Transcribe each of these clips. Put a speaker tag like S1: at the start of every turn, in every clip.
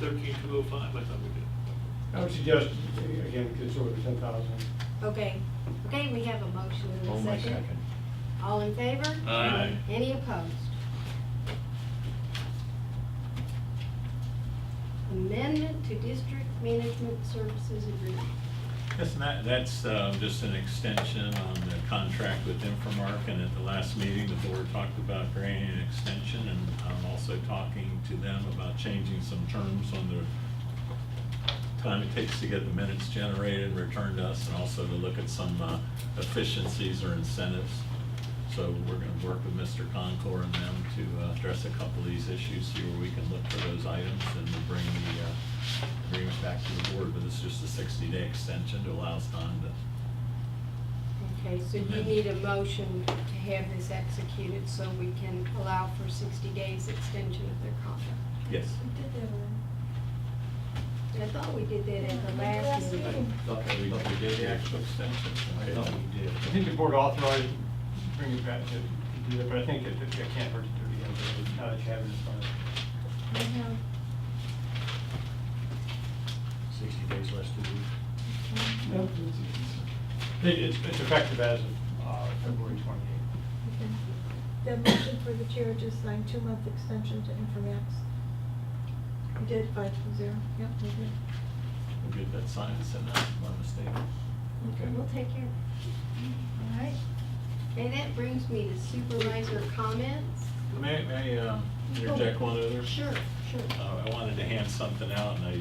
S1: Thirteen two oh five, I thought we did.
S2: I would suggest, again, it's over ten thousand.
S3: Okay, okay, we have a motion in
S4: Oh,
S3: a
S4: my
S3: second.
S4: second.
S3: All in favor?
S1: Aye.
S3: Any opposed? Amendment to district management services agreement.
S5: Yes, and that, that's uh, just an extension on the contract with Infomark, and at the last meeting, the board talked about granting an extension, and I'm also talking to them about changing some terms on the time it takes to get the minutes generated, returned to us, and also to look at some uh, efficiencies or incentives. So we're gonna work with Mr. Concord and them to uh, address a couple of these issues, see where we can look for those items, and to bring the uh, agreement back to the board, but it's just a sixty-day extension to allow us time to,
S3: Okay, so you need a motion to have this executed so we can allow for sixty days extension of their contract.
S5: yes.
S6: We did that
S3: I
S6: one.
S3: thought we did that at the last meeting.
S4: Thought that we-
S5: We did the actual extension.
S4: I thought we did.
S2: I think the board authorized, bring it back to, to do that, but I think it, it can't hurt to do it again, but now that you have it in front of you.
S6: We
S4: Mm-hmm.
S6: have,
S4: Sixty days less to do.
S2: Yep. It- It's, it's effective as of, uh, February twenty-eighth.
S6: okay. The motion for the chair to sign two-month extension to Informax. We did five to zero, yep, we did.
S5: We'll get that signed and sent out, if I'm not mistaken.
S3: We'll take care of it.
S6: All right.
S3: Okay, that brings me to supervisor comments.
S5: May, may I um, interject one other?
S3: Oh, Sure, sure.
S5: Uh, I wanted to hand something out, and I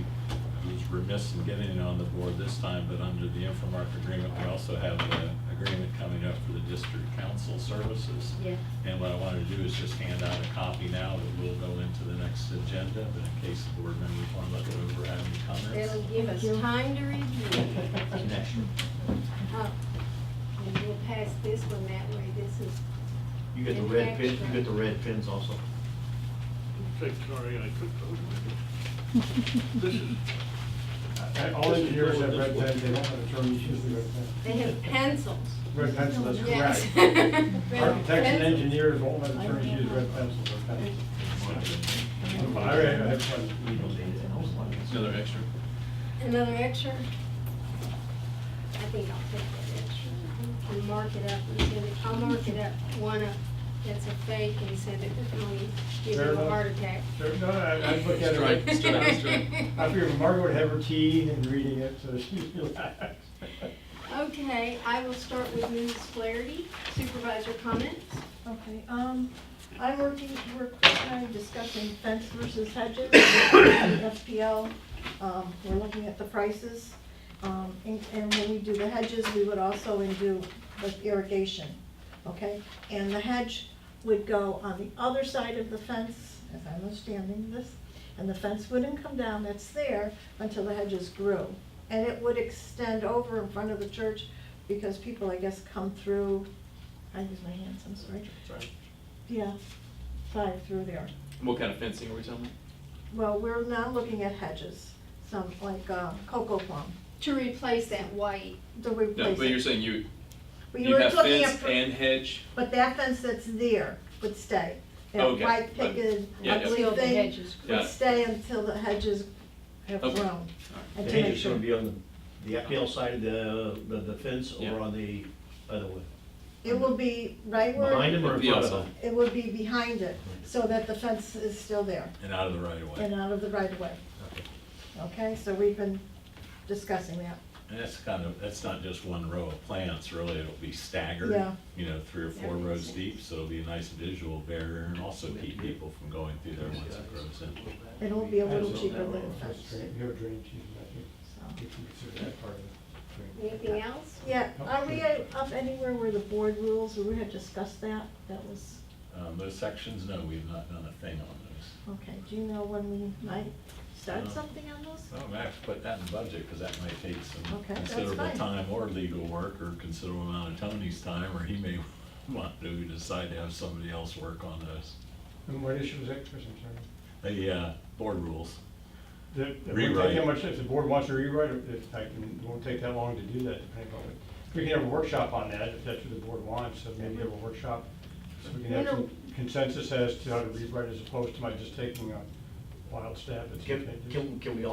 S5: I was remiss in getting it on the board this time, but under the Infomark agreement, we also have an agreement coming up for the district council services.
S3: Yeah.
S5: And what I wanted to do is just hand out a copy now that will go into the next agenda, but in case the board members want to look it over, have any comments?
S3: That'll give us time to review.
S4: Connection.
S3: Oh, And we'll pass this one that way, this is.
S4: You get the red pin, you get the red pins also.
S1: Okay, sorry, I took those. This is,
S2: I- I- All engineers have red pen, they don't have attorneys use the red
S3: They have pencils.
S2: pen. Red pencil is
S3: Yes.
S2: correct. Architects and
S3: Pencil.
S2: engineers won't let attorneys use red pencils or pencils. I I have
S4: We don't
S2: one.
S4: need it.
S5: Another extra?
S3: Another extra? I think I'll take that extra. And mark it up and send it, I'll mark it up, one up that's a fake and send it to Tony, give
S2: Fair
S3: him a
S2: enough.
S3: heart attack.
S2: There- No, I, I look at it.
S7: Strike, strike, strike.
S2: I figured Margaret would have her tea and reading it, so she'd relax.
S3: Okay, I will start with Mrs. Flaherty, supervisor comments.
S6: Okay, um, I'm working, we're kind of discussing fence versus hedges, FPL. Um, we're looking at the prices. Um, and, and when we do the hedges, we would also and do the irrigation, okay? And the hedge would go on the other side of the fence, as I'm understanding this, and the fence wouldn't come down, that's there, until the hedges grew. And it would extend over in front of the church, because people, I guess, come through, I use my hands, I'm sorry. Yeah, five through there.
S7: What kind of fencing are we talking
S6: Well, we're now looking at hedges, some like uh, cocoa plum,
S3: To replace that white,
S6: to
S7: about? No,
S6: replace.
S7: but you're
S6: it.
S7: saying you,
S6: We
S7: you
S6: were
S7: have
S6: looking
S7: fence
S6: at-
S7: and hedge?
S6: But that fence that's there would stay. That
S7: Okay,
S6: white
S7: but-
S6: picket,
S7: yeah, yeah.
S6: ugly
S3: Until the
S6: thing
S3: hedges
S7: grow.
S6: would stay until the hedges have
S7: Okay.
S6: grown.
S4: The
S6: and to make
S4: hedge is
S6: sure-
S4: gonna be on the, the FPL side of the, the- the fence
S7: Yeah.
S4: or on the other one?
S6: It will be right
S4: Behind
S6: where,
S4: him or in
S7: The
S4: front of
S7: outside.
S4: him?
S6: it would be behind it, so that the fence is still there
S5: And out of the right of
S6: and
S5: way.
S6: out of the right of way,
S4: Okay.
S6: okay? So we've been discussing that.
S5: And that's kind of, that's not just one row of plants, really, it'll be staggered,
S6: Yeah.
S5: you know, three or four
S3: That makes
S5: rows
S3: sense.
S5: deep, so it'll be a nice visual barrier and also keep people from going through there once it grows in.
S6: It will be a little cheaper than a fence,
S2: You have drainage easement,
S6: so.
S2: I think you can consider that part of the drainage.
S3: anything else?
S6: Yeah, are we up anywhere where the board rules, we had discussed that, that was,
S5: Um, those sections, no, we've not done a thing on those.
S6: okay, do you know when we might start something on those?
S5: Well, we have to put that in budget, because that might take some
S6: Okay, that's
S5: considerable
S6: fine.
S5: time or legal work or considerable amount of Tony's time, or he may want to decide to have somebody else work on those.
S2: And what issue was that, Chris, I'm sorry?
S5: The, uh, board rules.
S2: The- It wouldn't take that
S5: Rewrite.
S2: much, if the board wants to rewrite it, if I can, it won't take that long to do that, depending on it. We can have a workshop on that, if that's what the board wants, so maybe have a workshop. So we can have some consensus as to how to rewrite as opposed to my just taking a, wild stab at. some
S4: Can,
S2: fences.
S4: can, can we